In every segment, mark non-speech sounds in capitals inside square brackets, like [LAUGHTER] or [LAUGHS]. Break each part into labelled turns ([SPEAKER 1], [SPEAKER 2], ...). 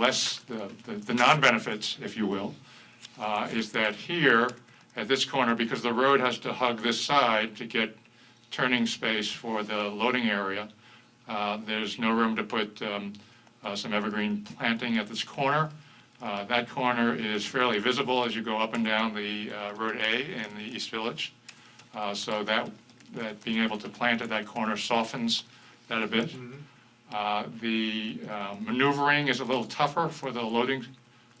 [SPEAKER 1] less the, the- the non-benefits, if you will, uh, is that here, at this corner, because the road has to hug this side to get turning space for the loading area, uh, there's no room to put um, uh, some evergreen planting at this corner. Uh, That corner is fairly visible as you go up and down the uh, Road A in the East Village. Uh, So that, that being able to plant at that corner softens that a bit. Uh, The uh, maneuvering is a little tougher for the loading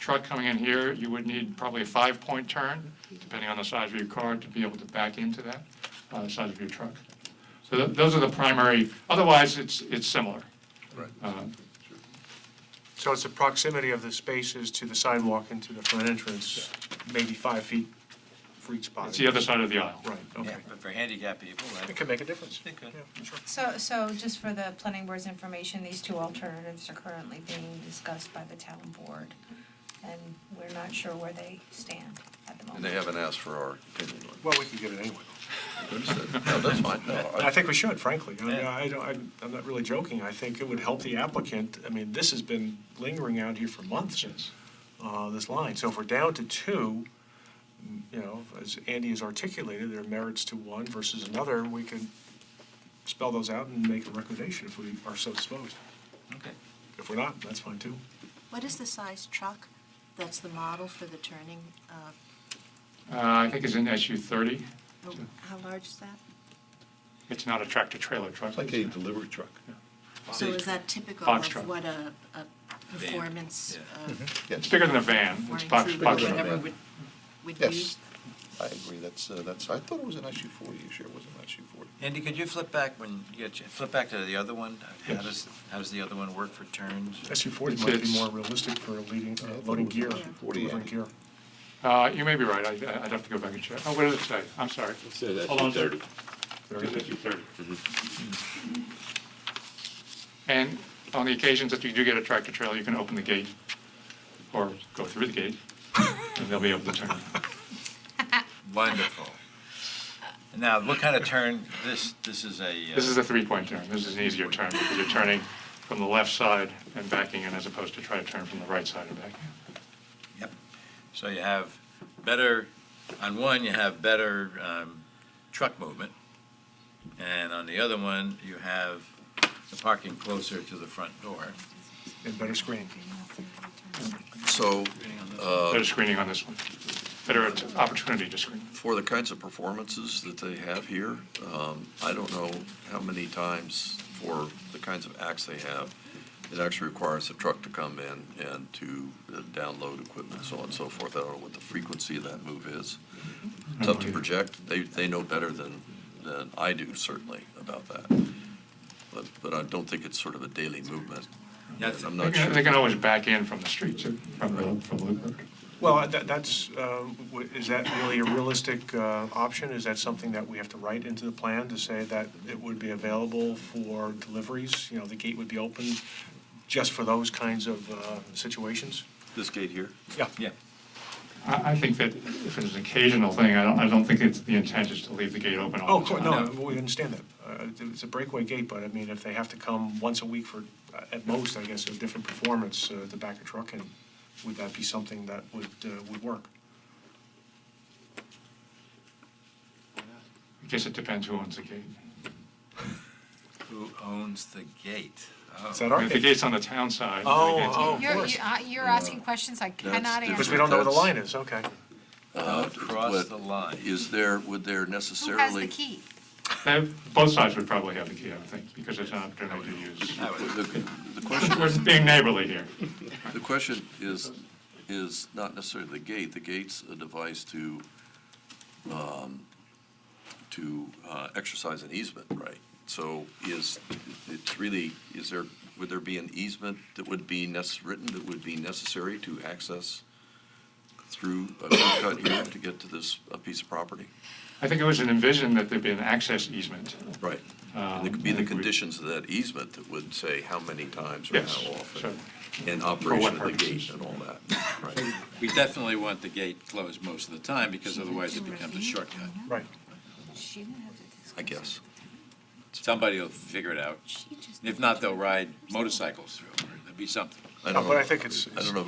[SPEAKER 1] truck coming in here. You would need probably a five-point turn, depending on the size of your car, to be able to back into that, uh, the size of your truck. So tho- those are the primary, otherwise, it's, it's similar.
[SPEAKER 2] Right.
[SPEAKER 1] Uh,
[SPEAKER 2] So it's the proximity of the spaces to the sidewalk and to the front entrance, maybe five feet for each spot.
[SPEAKER 1] It's the other side of the aisle.
[SPEAKER 2] Right, okay.
[SPEAKER 3] Yeah, but for handicap people,
[SPEAKER 2] It
[SPEAKER 3] that,
[SPEAKER 2] could make a difference.
[SPEAKER 3] It could.
[SPEAKER 2] Yeah, sure.
[SPEAKER 4] So, so just for the planning board's information, these two alternatives are currently being discussed by the town board, and we're not sure where they stand at the moment.
[SPEAKER 5] And they haven't asked for our opinion on
[SPEAKER 2] Well, we could get it anyway.
[SPEAKER 5] it. They said, No, that's fine, no.
[SPEAKER 2] I think we should, frankly. I mean,
[SPEAKER 3] Yeah.
[SPEAKER 2] I don't, I'm- I'm not really joking. I think it would help the applicant. I mean, this has been lingering out here for months, uh, this line. So if we're down to two, m- you know, as Andy has articulated, there are merits to one versus another, and we could spell those out and make a recommendation if we are so disposed.
[SPEAKER 3] okay.
[SPEAKER 2] If we're not, that's fine, too.
[SPEAKER 6] What is the size truck that's the model for the turning? uh,
[SPEAKER 1] Uh, I think it's an SU-30.
[SPEAKER 6] oh, How large is that?
[SPEAKER 1] It's not a tractor-trailer truck.
[SPEAKER 7] It's like a delivery truck.
[SPEAKER 6] So is that typical
[SPEAKER 1] Box
[SPEAKER 6] of
[SPEAKER 1] truck.
[SPEAKER 6] what a, a performance?
[SPEAKER 3] yeah.
[SPEAKER 6] uh,
[SPEAKER 1] It's bigger than a van. It's
[SPEAKER 6] performance
[SPEAKER 1] box,
[SPEAKER 6] group
[SPEAKER 1] Mm-hmm.
[SPEAKER 6] or
[SPEAKER 1] box
[SPEAKER 7] than a
[SPEAKER 1] truck.
[SPEAKER 6] Whatever
[SPEAKER 7] van.
[SPEAKER 6] would, would
[SPEAKER 7] Yes.
[SPEAKER 6] use?
[SPEAKER 7] I agree, that's, uh, that's, I thought it was an SU forty, you sure it was an SU forty?
[SPEAKER 3] Andy, could you flip back when you get, your- flip back to the other one? How does, how does the other one work for turns?
[SPEAKER 2] SU forty might be
[SPEAKER 1] It's-
[SPEAKER 2] more realistic for leading,
[SPEAKER 7] Yeah,
[SPEAKER 2] uh,
[SPEAKER 7] I thought
[SPEAKER 2] loading
[SPEAKER 7] it was
[SPEAKER 2] gear,
[SPEAKER 7] 40,
[SPEAKER 2] delivering
[SPEAKER 7] yeah.
[SPEAKER 2] gear.
[SPEAKER 1] Uh, You may be right. I- I- I'd have to go back and check. Oh, what does it say? I'm sorry. It
[SPEAKER 8] said SU-30.
[SPEAKER 1] SU-30.
[SPEAKER 5] Mm-hmm.
[SPEAKER 1] Mm-hmm. And on the occasions that you do get a tractor-trailer, you can open the gate or go through the
[SPEAKER 5] [LAUGHS]
[SPEAKER 1] gate, and they'll be able to turn.
[SPEAKER 3] Wonderful. Now, what kind of turn, this, this is a. uh,
[SPEAKER 1] This is a three-point turn. This is an easier turn because you're turning from the left side and backing in as opposed to trying to turn from the right side and backing in.
[SPEAKER 3] Yep. So you have better, on one, you have better um, truck movement, and on the other one, you have the parking closer to the front door.
[SPEAKER 2] And better screen.
[SPEAKER 5] So, uh,
[SPEAKER 1] Better screening on this one. Better opportunity to screen.
[SPEAKER 5] for the kinds of performances that they have here, um, I don't know how many times for the kinds of acts they have, it actually requires a truck to come in and to uh, download equipment, so on and so forth. I don't know what the frequency of that move is. Tough to project. They, they know better than, than I do certainly about that. But, but I don't think it's sort of a daily movement.
[SPEAKER 3] That's-
[SPEAKER 5] I'm
[SPEAKER 1] They
[SPEAKER 5] not
[SPEAKER 1] can
[SPEAKER 5] sure.
[SPEAKER 1] they can always back in from the street, too, from the, from Loop Road.
[SPEAKER 2] Well, that, that's, uh, w- is that really a realistic, uh, option? Is that something that we have to write into the plan to say that it would be available for deliveries? You know, the gate would be open just for those kinds of, uh, situations?
[SPEAKER 5] This gate here?
[SPEAKER 2] Yeah.
[SPEAKER 3] Yeah.
[SPEAKER 1] I, I think that if it's an occasional thing, I don't, I don't think it's, the intent is to leave the gate open
[SPEAKER 2] Oh,
[SPEAKER 1] all the
[SPEAKER 2] cool,
[SPEAKER 1] time.
[SPEAKER 2] no, we understand that. Uh, It's a breakaway gate, but I mean, if they have to come once a week for, uh, at most, I guess, a different performance uh, to back a truck in, would that be something that would, uh, would work?
[SPEAKER 1] I guess it depends who owns the gate.
[SPEAKER 3] Who owns the gate? Oh.
[SPEAKER 2] Is that
[SPEAKER 1] I
[SPEAKER 2] our,
[SPEAKER 1] mean, If the gate's on the town side. the
[SPEAKER 2] Oh,
[SPEAKER 1] gate's
[SPEAKER 2] oh.
[SPEAKER 1] on-
[SPEAKER 2] You're- course. you-
[SPEAKER 4] you're asking questions I
[SPEAKER 5] cannot different.
[SPEAKER 2] because
[SPEAKER 5] answer.
[SPEAKER 2] we don't know where the line is, okay.
[SPEAKER 3] Across
[SPEAKER 5] But
[SPEAKER 3] the line.
[SPEAKER 5] Uh, Is there, would there necessarily?
[SPEAKER 4] key?
[SPEAKER 1] They- Both sides would probably have the key, I would think, because it's an opportunity to use.
[SPEAKER 3] I would-
[SPEAKER 5] The the question,
[SPEAKER 1] We're being neighborly here.
[SPEAKER 5] the question is, is not necessarily the gate. The gate's a device to, um, to uh, exercise an easement, right? So is, it's really, is there, would there be an easement that would be necess, written that would be necessary to access through a curb cut here to get to this uh, piece of property?
[SPEAKER 1] I think it was an envision that there'd be an access easement.
[SPEAKER 5] Right. And it could be
[SPEAKER 1] Um, I think
[SPEAKER 5] the
[SPEAKER 1] we-
[SPEAKER 5] conditions of that easement that would say how many times or
[SPEAKER 1] Yes,
[SPEAKER 5] how
[SPEAKER 1] sure.
[SPEAKER 5] often. And operation of the
[SPEAKER 1] purposes?
[SPEAKER 5] gate and all that, right?
[SPEAKER 3] We definitely want the gate closed most of the time, because otherwise it becomes a shortcut.
[SPEAKER 2] Right.
[SPEAKER 6] She didn't have to
[SPEAKER 5] I guess.
[SPEAKER 3] Somebody will figure it out.
[SPEAKER 6] She just.
[SPEAKER 3] If not, they'll ride motorcycles through, or there'll be something.
[SPEAKER 2] I
[SPEAKER 9] No,
[SPEAKER 2] don't
[SPEAKER 9] but
[SPEAKER 2] know.
[SPEAKER 9] I think it's-
[SPEAKER 2] I don't know